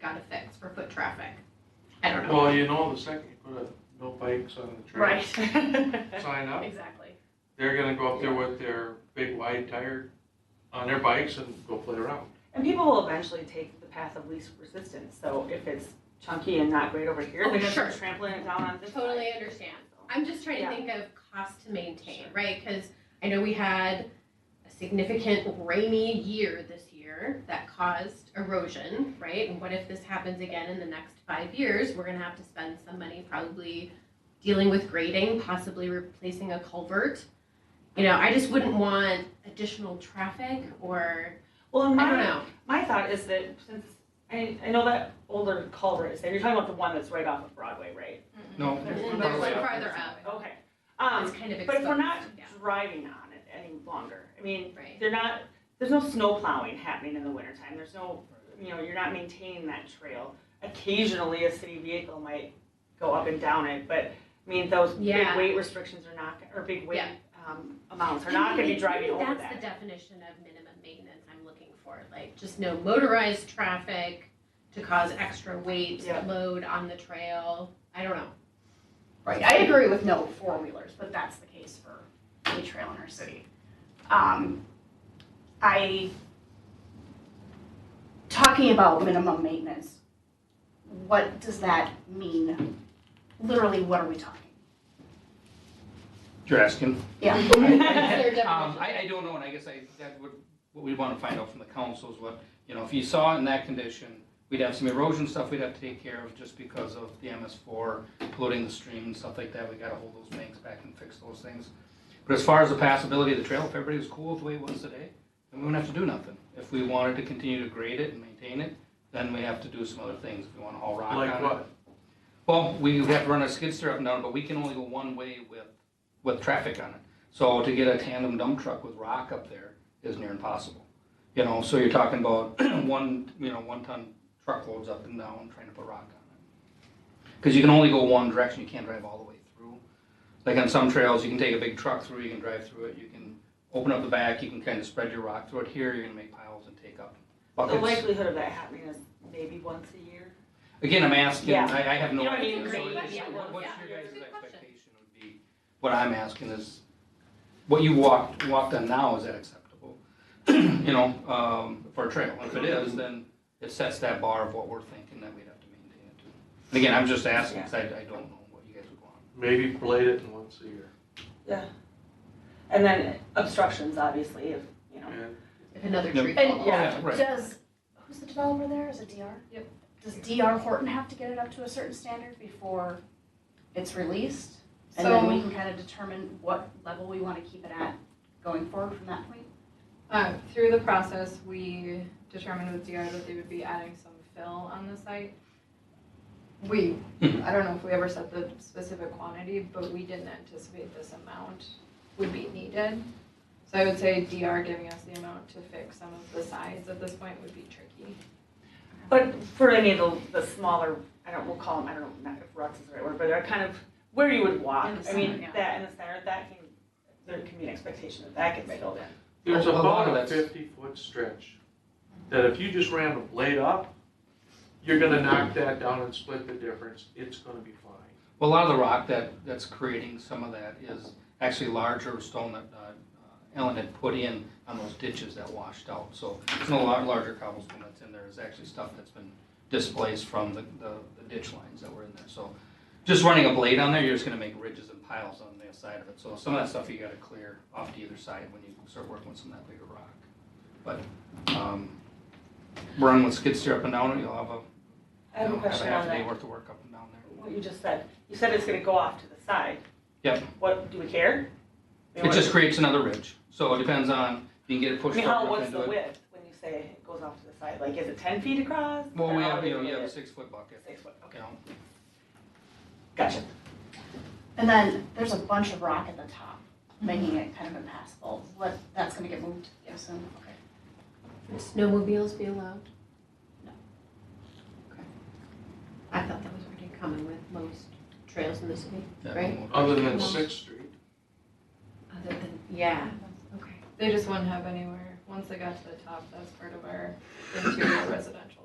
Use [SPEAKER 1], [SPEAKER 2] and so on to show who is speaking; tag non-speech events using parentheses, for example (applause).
[SPEAKER 1] gotta fix for foot traffic. I don't know.
[SPEAKER 2] Well, you know, the second you put a no bikes on the trail
[SPEAKER 3] (laughs)
[SPEAKER 4] Right,
[SPEAKER 2] (laughs) sign up,
[SPEAKER 4] exactly.
[SPEAKER 2] they're gonna go up there with their big wide tire on their bikes and go play around.
[SPEAKER 3] And people will eventually take the path of least resistance, so if it's chunky and not great over here,
[SPEAKER 1] Oh,
[SPEAKER 3] they're gonna
[SPEAKER 1] sure.
[SPEAKER 3] start trampling it down on this side.
[SPEAKER 1] Totally understand. I'm just trying to
[SPEAKER 3] Yeah.
[SPEAKER 1] think of cost to maintain, right? Because I know we had a significant rainy year this year that caused erosion, right? And what if this happens again in the next five years? We're gonna have to spend some money probably dealing with grading, possibly replacing a culvert. You know, I just wouldn't want additional traffic or,
[SPEAKER 3] Well, and
[SPEAKER 1] I don't
[SPEAKER 3] my,
[SPEAKER 1] know.
[SPEAKER 3] my thought is that since, I, I know that older culvert is there, you're talking about the one that's right off of Broadway, right?
[SPEAKER 2] No.
[SPEAKER 3] There's
[SPEAKER 1] There's one farther up.
[SPEAKER 3] Okay,
[SPEAKER 1] It's
[SPEAKER 3] um,
[SPEAKER 1] kind of exposed.
[SPEAKER 3] but if we're not
[SPEAKER 1] yeah,
[SPEAKER 3] driving on it any longer, I mean,
[SPEAKER 1] Right.
[SPEAKER 3] they're not, there's no snow plowing happening in the wintertime, there's no, you know, you're not maintaining that trail. Occasionally, a city vehicle might go up and down it, but, I mean, those big
[SPEAKER 1] Yeah.
[SPEAKER 3] weight restrictions are not, or big weight,
[SPEAKER 1] Yeah.
[SPEAKER 3] um, amounts are not gonna be
[SPEAKER 1] Maybe-
[SPEAKER 3] driving
[SPEAKER 1] maybe
[SPEAKER 3] over
[SPEAKER 1] That's the
[SPEAKER 3] that.
[SPEAKER 1] definition of minimum maintenance I'm looking for, like just no motorized traffic to cause extra weight,
[SPEAKER 3] Yeah.
[SPEAKER 1] load on the trail. I don't know.
[SPEAKER 4] Right, I agree with no four-wheelers, but that's the case for any trail in our city. Um, I, talking about minimum maintenance, what does that mean? Literally, what are we talking?
[SPEAKER 5] You're asking?
[SPEAKER 4] Yeah.
[SPEAKER 1] That's their
[SPEAKER 5] Um,
[SPEAKER 1] definition.
[SPEAKER 5] I, I don't know, and I guess I, that would, what we want to find out from the council is what, you know, if you saw it in that condition, we'd have some erosion stuff we'd have to take care of just because of the MS four polluting the stream and stuff like that. We gotta hold those banks back and fix those things. But as far as the passability of the trail, if everybody was cool with the way it was today, then we wouldn't have to do nothing. If we wanted to continue to grade it and maintain it, then we have to do some other things. If we want to haul rock on it.
[SPEAKER 2] Like what?
[SPEAKER 5] Well, we have to run our skid steer up and down, but we can only go one way with, with traffic on it. So to get a tandem dump truck with rock up there is near impossible. You know, so you're talking about (clears throat) one, you know, one ton truckloads up and down trying to put rock on it. Cause you can only go one direction, you can't drive all the way through. Like on some trails, you can take a big truck through, you can drive through it, you can open up the back, you can kind of spread your rock through it. Here, you're gonna make piles and take up
[SPEAKER 3] The
[SPEAKER 5] buckets.
[SPEAKER 3] likelihood of that happening is maybe once a year.
[SPEAKER 5] Again, I'm asking,
[SPEAKER 3] Yeah.
[SPEAKER 5] I, I have no
[SPEAKER 3] You don't
[SPEAKER 5] idea.
[SPEAKER 3] need
[SPEAKER 5] So
[SPEAKER 3] grade,
[SPEAKER 5] it's-
[SPEAKER 1] yeah,
[SPEAKER 5] what- What's
[SPEAKER 1] yeah.
[SPEAKER 5] your guys'
[SPEAKER 1] Good question.
[SPEAKER 5] expectation would be, what I'm asking is, what you walked, walked on now, is that acceptable? (clears throat) You know, um, for a trail, if it is, then it sets that bar of what we're thinking that we'd have to maintain it to. And again, I'm just asking, because I, I don't know what you guys would want.
[SPEAKER 2] Maybe blade it in once a year.
[SPEAKER 3] And then obstructions, obviously, if, you know,
[SPEAKER 2] And
[SPEAKER 1] If another
[SPEAKER 5] No.
[SPEAKER 1] tree
[SPEAKER 4] And-
[SPEAKER 1] falls.
[SPEAKER 3] yeah.
[SPEAKER 5] Right.
[SPEAKER 4] Does, who's the developer there? Is it DR?
[SPEAKER 1] Yep.
[SPEAKER 4] Does DR Horton have to get it up to a certain standard before it's released? And then we
[SPEAKER 1] So,
[SPEAKER 4] can kind of determine what level we want to keep it at going forward from that point?
[SPEAKER 6] Uh, through the process, we determined with DR that they would be adding some fill on the site. We, I don't know if we ever set the specific quantity, but we didn't anticipate this amount would be needed. So I would say DR giving us the amount to fix some of the sides at this point would be tricky.
[SPEAKER 3] But for any of the, the smaller, I don't, we'll call them, I don't know if ruts is the right word, but they're kind of where you would walk.
[SPEAKER 6] In the
[SPEAKER 3] I mean,
[SPEAKER 6] center, yeah.
[SPEAKER 3] that in the center, that can, there can be an expectation that that gets filled in.
[SPEAKER 2] There's
[SPEAKER 5] A
[SPEAKER 2] about
[SPEAKER 5] lot of
[SPEAKER 2] a
[SPEAKER 5] that's-
[SPEAKER 2] fifty foot stretch that if you just ran the blade up, you're gonna knock that down and split the difference. It's gonna be fine.
[SPEAKER 5] Well, a lot of the rock that, that's creating some of that is actually larger stone that uh, Ellen had put in on those ditches that washed out. So it's a lot larger cobblestone that's in there is actually stuff that's been displaced from the, the the ditch lines that were in there. So just running a blade on there, you're just gonna make ridges and piles on the side of it. So some of that stuff you gotta clear off to either side when you start working with some of that bigger rock. But, um, run with skid steer up and down, you'll have a,
[SPEAKER 3] I have a
[SPEAKER 5] you'll have a
[SPEAKER 3] question on
[SPEAKER 5] half a day
[SPEAKER 3] that,
[SPEAKER 5] worth of work up and down there.
[SPEAKER 3] what you just said. You said it's gonna go off to the side.
[SPEAKER 5] Yep.
[SPEAKER 3] What, do we care? I mean,
[SPEAKER 5] It
[SPEAKER 3] what-
[SPEAKER 5] just creates another ridge, so it depends on, you can get it
[SPEAKER 3] I
[SPEAKER 5] pushed
[SPEAKER 3] mean,
[SPEAKER 5] up
[SPEAKER 3] how,
[SPEAKER 5] up
[SPEAKER 3] what's the
[SPEAKER 5] into it.
[SPEAKER 3] width when you say it goes off to the side? Like, is it ten feet across?
[SPEAKER 5] Well,
[SPEAKER 3] Or
[SPEAKER 5] we
[SPEAKER 3] how
[SPEAKER 5] have,
[SPEAKER 3] big
[SPEAKER 5] you know,
[SPEAKER 3] is
[SPEAKER 5] you have a
[SPEAKER 3] it?
[SPEAKER 5] six foot bucket,
[SPEAKER 3] Six foot, okay,
[SPEAKER 5] you know.
[SPEAKER 3] gotcha.
[SPEAKER 4] And then there's a bunch of rock at the top, making it kind of impassable. What, that's going to get moved, I assume? Okay.
[SPEAKER 1] Would snowmobiles be allowed?
[SPEAKER 4] No.
[SPEAKER 1] Okay. I thought that was pretty common with most trails in the city,
[SPEAKER 5] Yeah,
[SPEAKER 1] Right.
[SPEAKER 5] we'll-
[SPEAKER 2] Other than Sixth Street,
[SPEAKER 1] other than, yeah, okay.
[SPEAKER 6] They just wouldn't have anywhere, once they got to the top, that's part of our interior residential